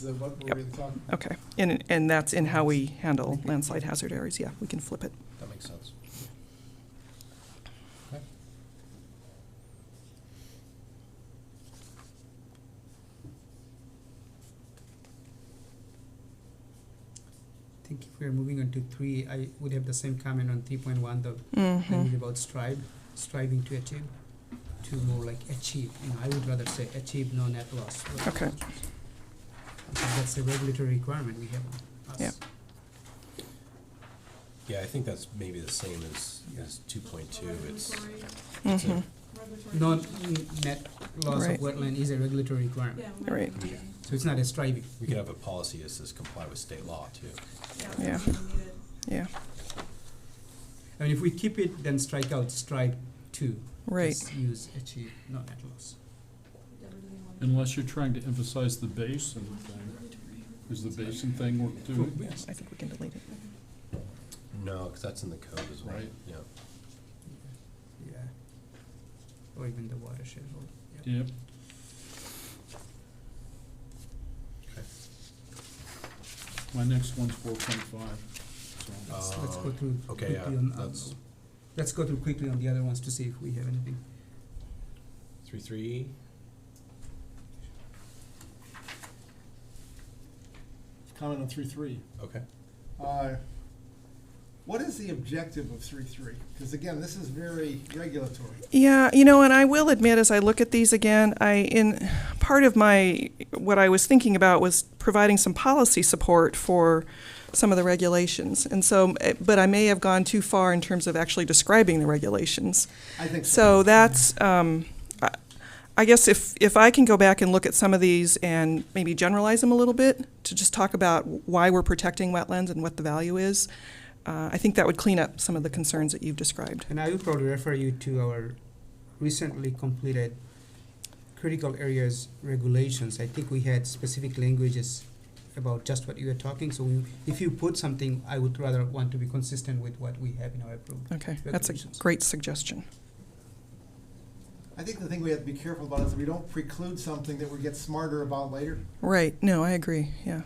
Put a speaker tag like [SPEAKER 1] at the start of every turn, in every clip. [SPEAKER 1] the, what
[SPEAKER 2] Yep.
[SPEAKER 1] we're really talking about.
[SPEAKER 2] Okay, and, and that's in how we handle landslide hazard areas, yeah, we can flip it.
[SPEAKER 3] That makes sense.
[SPEAKER 4] I think if we're moving on to three, I would have the same comment on three point one, the
[SPEAKER 2] Uh-huh. Mm-hmm.
[SPEAKER 4] language about strive, striving to achieve, to more like achieve, you know, I would rather say achieve, no net loss. but-
[SPEAKER 2] Okay.
[SPEAKER 4] Because That's a regulatory requirement we have on us.
[SPEAKER 2] Yeah.
[SPEAKER 3] Yeah, I think that's maybe the same as, as two point two, it's, it's a-
[SPEAKER 2] Mhm.
[SPEAKER 4] Non, net loss of
[SPEAKER 2] Right.
[SPEAKER 4] wetland is a regulatory requirement,
[SPEAKER 2] Right.
[SPEAKER 4] so it's not a striving.
[SPEAKER 3] we could have a policy that says comply with state law too.
[SPEAKER 2] Yeah. Yeah,
[SPEAKER 4] I mean, if we keep it, then strike out strive to,
[SPEAKER 2] right,
[SPEAKER 4] just use achieve, no net loss.
[SPEAKER 5] Unless you're trying to emphasize the basin thing. Is the basin thing work too?
[SPEAKER 2] I think we can delete it.
[SPEAKER 3] No, because that's in the code as well,
[SPEAKER 5] Right.
[SPEAKER 3] yeah.
[SPEAKER 4] Yeah. Or even the watershed rule, yeah.
[SPEAKER 5] Yep. My next one's four point five,
[SPEAKER 4] Let's, let's go
[SPEAKER 3] Uh,
[SPEAKER 4] through
[SPEAKER 3] okay,
[SPEAKER 4] quickly
[SPEAKER 3] yeah,
[SPEAKER 4] on, on,
[SPEAKER 3] that's-
[SPEAKER 4] let's go through quickly on the other ones to see if we have anything.
[SPEAKER 3] Three, three,
[SPEAKER 6] Comment on three three.
[SPEAKER 3] okay.
[SPEAKER 1] Uh, What is the objective of three three? Because again, this is very regulatory.
[SPEAKER 2] Yeah, you know, and I will admit, as I look at these again, I, in, part of my, what I was thinking about was providing some policy support for some of the regulations. And so, eh, but I may have gone too far in terms of actually describing the regulations.
[SPEAKER 1] I think
[SPEAKER 2] So that's, um, I- I guess if, if I can go back and look at some of these and maybe generalize them a little bit to just talk about why we're protecting wetlands and what the value is, uh, I think that would clean up some of the concerns that you've described.
[SPEAKER 4] And I will probably refer you to our recently completed critical areas regulations. I think we had specific languages about just what you were talking, so we, if you put something, I would rather want to be consistent with what we have in our approved.
[SPEAKER 2] Okay, that's a
[SPEAKER 4] Regulations.
[SPEAKER 2] great suggestion.
[SPEAKER 1] I think the thing we have to be careful about is we don't preclude something that we get smarter about later.
[SPEAKER 2] Right, no, I agree, yeah.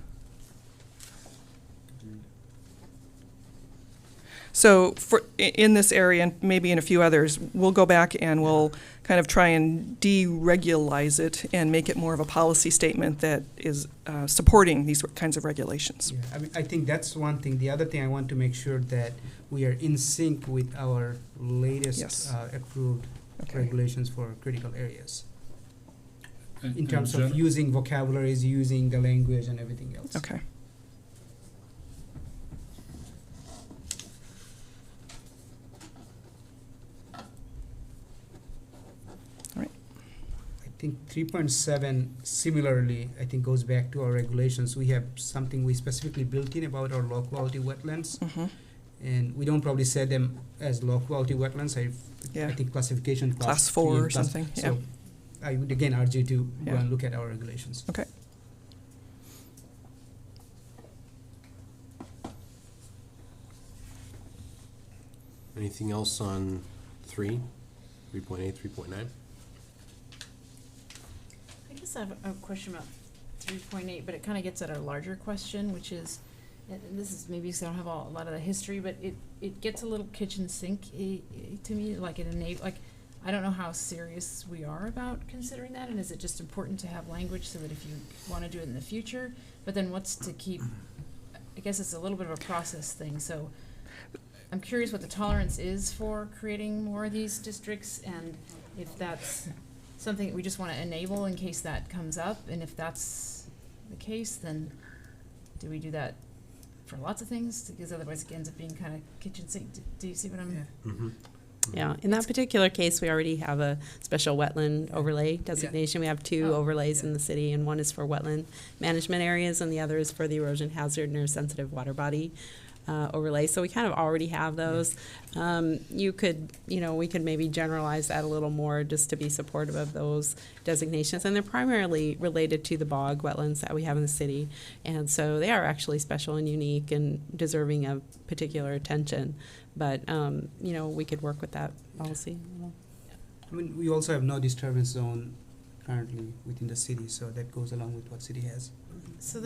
[SPEAKER 2] So for, i- in this area, and maybe in a few others, we'll go back and we'll kind of try and deregulize it and make it more of a policy statement that is uh, supporting these kinds of regulations.
[SPEAKER 4] Yeah, I mean, I think that's one thing. The other thing I want to make sure that we are in sync with our
[SPEAKER 2] Yes.
[SPEAKER 4] latest uh, approved
[SPEAKER 2] Okay,
[SPEAKER 4] regulations for critical areas.
[SPEAKER 5] so.
[SPEAKER 4] in terms of using vocabularies, using the language and everything else.
[SPEAKER 2] okay.
[SPEAKER 4] I think three point seven similarly, I think goes back to our regulations. We have something we specifically built in about our low quality wetlands.
[SPEAKER 2] Mhm.
[SPEAKER 4] And we don't probably set them as low quality wetlands, I,
[SPEAKER 2] Yeah.
[SPEAKER 4] I think classification class.
[SPEAKER 2] Class
[SPEAKER 4] three
[SPEAKER 2] four
[SPEAKER 4] and
[SPEAKER 2] or
[SPEAKER 4] class-
[SPEAKER 2] something, yeah.
[SPEAKER 4] So I would again urge you to go
[SPEAKER 2] Yeah.
[SPEAKER 4] and look at our regulations.
[SPEAKER 3] Anything else on three, three point eight, three point nine?
[SPEAKER 7] I guess I have a question about three point eight, but it kind of gets at our larger question, which is, and and this is maybe because I don't have all- a lot of the history, but it, it gets a little kitchen sink eh, to me, like it enable, like, I don't know how serious we are about considering that, and is it just important to have language so that if you want to do it in the future, but then what's to keep, I guess it's a little bit of a process thing, so I'm curious what the tolerance is for creating more of these districts, and if that's something that we just want to enable in case that comes up, and if that's the case, then do we do that for lots of things? Because otherwise, it ends up being kind of kitchen sink. Do, do you see what I'm?
[SPEAKER 4] Yeah.
[SPEAKER 3] Mm-hmm.
[SPEAKER 8] Yeah, in that particular case, we already have a special wetland overlay designation. We have two
[SPEAKER 7] Oh,
[SPEAKER 8] overlays in
[SPEAKER 4] yeah.
[SPEAKER 8] the city, and one is for wetland management areas, and the other is for the erosion hazard and sensitive water body uh, overlay. So we kind of already have those. Um, You could, you know, we could maybe generalize that a little more just to be supportive of those designations. And they're primarily related to the bog wetlands that we have in the city. And so they are actually special and unique and deserving of particular attention. But, um, you know, we could work with that policy.
[SPEAKER 4] I mean, we also have no disturbance zone currently within the city, so that goes along with what city has.
[SPEAKER 7] So